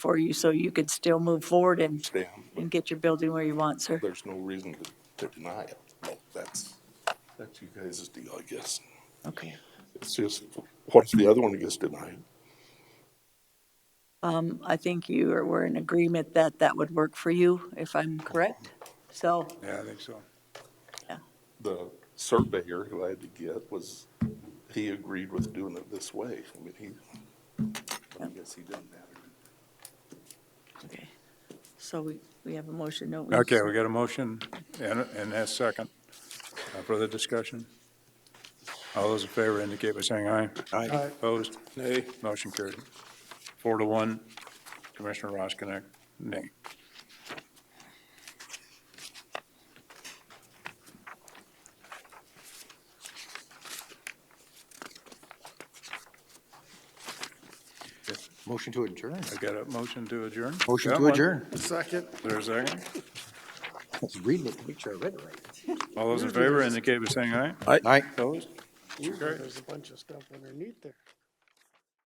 for you so you could still move forward and, Damn, but and get your building where you want, sir. there's no reason to, to deny it. No, that's, that's you guys' deal, I guess. Okay. It's just, what if the other one gets denied? Um, I think you are, we're in agreement that that would work for you, if I'm correct. So, Yeah, I think so. The surveyor who I had to get was, he agreed with doing it this way. I mean, he, I guess he didn't matter. okay. So we, we have a motion, don't we? Okay, we got a motion and, and a second. Uh, Further discussion? All those in favor indicate by saying aye. Aye. Opposed? Nay. Motion carried. Four to one. Commissioner Roskinek, nay. Motion to adjourn. I got a motion to adjourn? Motion Got to one. adjourn. There's a second. I was reading it to make sure I read it right. All those in favor indicate by saying aye. Aye. Opposed? Ooh, Sure. There's a bunch of stuff underneath there.